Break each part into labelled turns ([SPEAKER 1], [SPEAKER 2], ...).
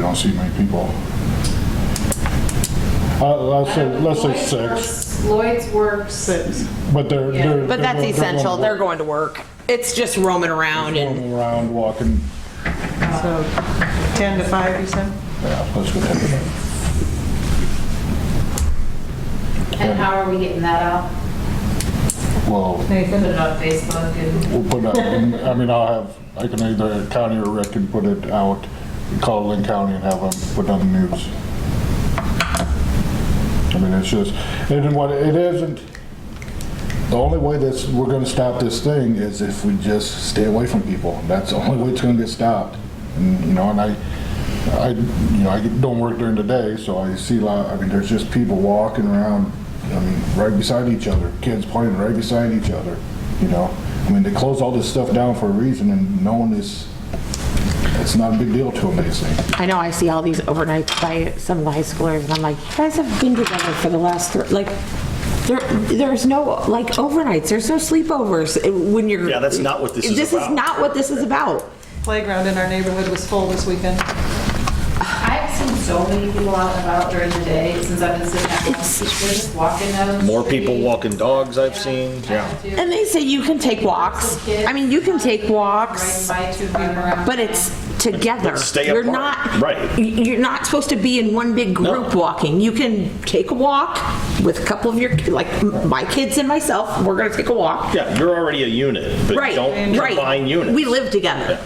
[SPEAKER 1] don't see many people.
[SPEAKER 2] I'll I'll say, Uh, let's say
[SPEAKER 3] Lloyd's
[SPEAKER 2] six,
[SPEAKER 3] works- Lloyd's works,
[SPEAKER 2] six, but they're,
[SPEAKER 3] Yeah.
[SPEAKER 2] they're.
[SPEAKER 4] But that's
[SPEAKER 2] they're- they're
[SPEAKER 4] essential. They're
[SPEAKER 2] going
[SPEAKER 4] going to work. It's just roaming around and
[SPEAKER 2] Roaming around, walking,
[SPEAKER 5] So 10 to 5, you said?
[SPEAKER 2] yeah, let's go ahead with that.
[SPEAKER 3] and how are we getting that out?
[SPEAKER 2] Well,
[SPEAKER 3] Put it on Facebook and,
[SPEAKER 2] we'll put that, in- I mean, I'll have, I can either, county or Rick can put it out, call Lynn County and have them put on the news. I mean, it's just, and what, it isn't, the only way this, we're gonna stop this thing is if we just stay away from people. That's the only way it's gonna get stopped. And, you know, and I, I, you know, I don't work during the day, so I see a lot, I mean, there's just people walking around, I mean, right beside each other, kids playing right beside each other, you know? I mean, they close all this stuff down for a reason and no one is, it's not a big deal to them, they say.
[SPEAKER 4] I know I see all these overnights by some of the high schoolers, and I'm like, you guys have been together for the last, thr- like, there, there's no, like, overnights, there's no sleepovers eh, when you're.
[SPEAKER 6] Yeah, that's not what this is
[SPEAKER 4] This is
[SPEAKER 6] about.
[SPEAKER 4] not what this is about.
[SPEAKER 5] Playground in our neighborhood was full this weekend.
[SPEAKER 3] I've seen so many people out and about during the day since I've been sitting at home. They're just walking down. the
[SPEAKER 6] More people
[SPEAKER 3] street.
[SPEAKER 6] walking dogs I've seen, yeah.
[SPEAKER 3] Trying to
[SPEAKER 4] And they say you can take walks. I mean, you can take
[SPEAKER 3] Ride
[SPEAKER 4] walks,
[SPEAKER 3] bikes and run around.
[SPEAKER 4] but it's together.
[SPEAKER 6] But stay
[SPEAKER 4] You're
[SPEAKER 6] apart.
[SPEAKER 4] not.
[SPEAKER 6] Right.
[SPEAKER 4] y- You're not supposed to be in one big group walking. You can take a walk with a couple of your, like, m- my kids and myself, we're gonna take a walk.
[SPEAKER 6] Yeah, you're already a unit, but
[SPEAKER 4] Right,
[SPEAKER 6] don't
[SPEAKER 4] right.
[SPEAKER 6] combine units.
[SPEAKER 4] We live together.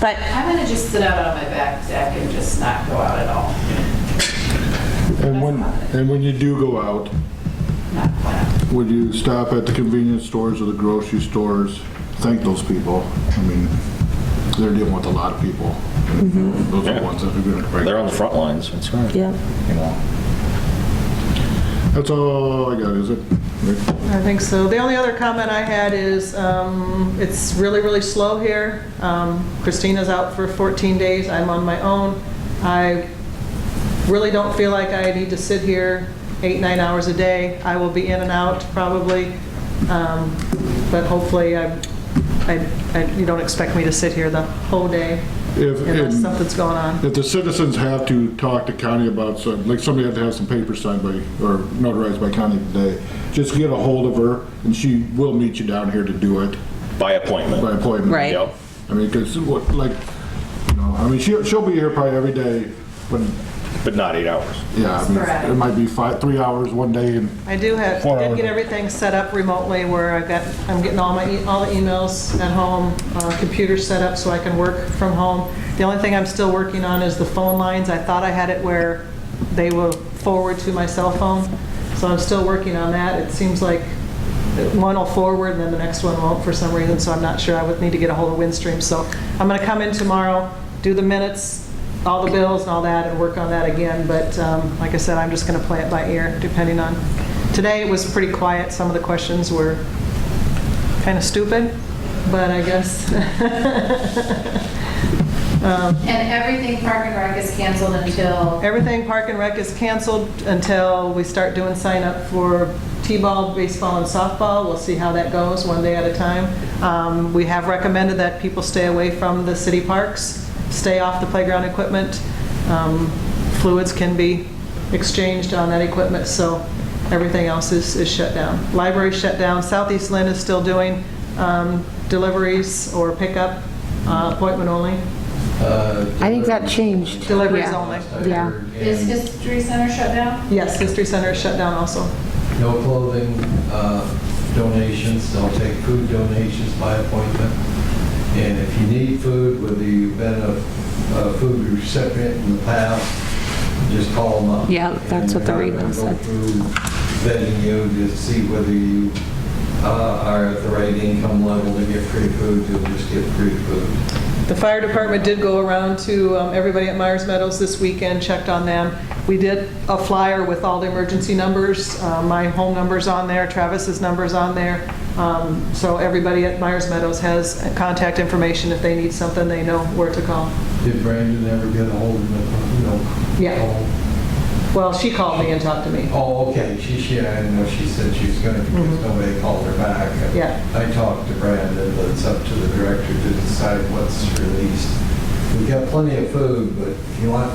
[SPEAKER 4] But
[SPEAKER 3] I'm gonna just sit out on my back deck and just not go out at all.
[SPEAKER 2] And when, and when you do go out,
[SPEAKER 3] Not plan.
[SPEAKER 2] would you stop at the convenience stores or the grocery stores? Thank those people. I mean, they're dealing with a lot of people. Those are the ones that are gonna break.
[SPEAKER 6] They're on the front lines, that's right.
[SPEAKER 4] Yeah.
[SPEAKER 6] You know.
[SPEAKER 2] That's all I got, is it? Rick?
[SPEAKER 5] I think so. The only other comment I had is, um, it's really, really slow here. Um, Christina's out for 14 days, I'm on my own. I really don't feel like I need to sit here eight, nine hours a day. I will be in and out probably, Um, but hopefully I, I- I- you don't expect me to sit here the whole day
[SPEAKER 2] If-
[SPEAKER 5] unless
[SPEAKER 2] and-
[SPEAKER 5] something's going on.
[SPEAKER 2] If the citizens have to talk to county about some, like somebody had to have some papers signed by, or notarized by county today, just get a hold of her and she will meet you down here to do it
[SPEAKER 6] By appointment.
[SPEAKER 2] by appointment.
[SPEAKER 4] Right.
[SPEAKER 6] Yep.
[SPEAKER 2] I mean, because what, like, you know, I mean, she'll, she'll be here probably every day, but,
[SPEAKER 6] But not eight hours.
[SPEAKER 2] yeah, I mean, it might be five, three hours one day and
[SPEAKER 5] I do have,
[SPEAKER 2] Four
[SPEAKER 5] did
[SPEAKER 2] hours.
[SPEAKER 5] get everything set up remotely where I've got, I'm getting all my, e- all the emails at home, uh, computer set up so I can work from home. The only thing I'm still working on is the phone lines. I thought I had it where they will forward to my cell phone, so I'm still working on that. It seems like one will forward and then the next one won't for some reason, so I'm not sure. I would need to get a hold of Windstream. So I'm going to come in tomorrow, do the minutes, all the bills and all that, and work on that again. But um, like I said, I'm just going to play it by ear, depending on. Today it was pretty quiet. Some of the questions were kind of stupid, but I guess,
[SPEAKER 3] And everything Park and Rec is canceled until,
[SPEAKER 5] everything Park and Rec is canceled until we start doing sign up for T-ball, baseball, and softball. We'll see how that goes, one day at a time. Um, We have recommended that people stay away from the city parks, stay off the playground equipment. Um, Fluids can be exchanged on that equipment, so everything else is is shut down. Library shut down, Southeast Lynn is still doing um, deliveries or pickup, uh, appointment only,
[SPEAKER 4] I think that changed.
[SPEAKER 5] deliveries
[SPEAKER 4] Yeah.
[SPEAKER 5] only.
[SPEAKER 4] Yeah.
[SPEAKER 3] is
[SPEAKER 7] And
[SPEAKER 3] History Center shut down?
[SPEAKER 5] Yes, History Center is shut down also.
[SPEAKER 7] no clothing uh, donations, they'll take food donations by appointment. And if you need food, whether you've been a a food recipient in the past, just call them up.
[SPEAKER 4] Yeah, that's what the
[SPEAKER 7] And they're
[SPEAKER 4] email
[SPEAKER 7] gonna
[SPEAKER 4] said.
[SPEAKER 7] Go through vetting you to see whether you uh, are at the right income level to get free food, you'll just get free food.
[SPEAKER 5] The fire department did go around to um, everybody at Myers Meadows this weekend, checked on them. We did a flyer with all the emergency numbers, Uh, my home number's on there, Travis's number's on there. Um, So everybody at Myers Meadows has contact information, if they need something, they know where to call.
[SPEAKER 7] Did Brandon ever get a hold of the, you know?
[SPEAKER 5] Yeah.
[SPEAKER 7] call?
[SPEAKER 5] Well, she called me and talked to me.
[SPEAKER 7] Oh, okay, she, she, I didn't know she said she was gonna, because nobody called her back. And
[SPEAKER 5] Yeah.
[SPEAKER 7] I talked to Brandon, but it's up to the director to decide what's released. We've got plenty of food, but if you want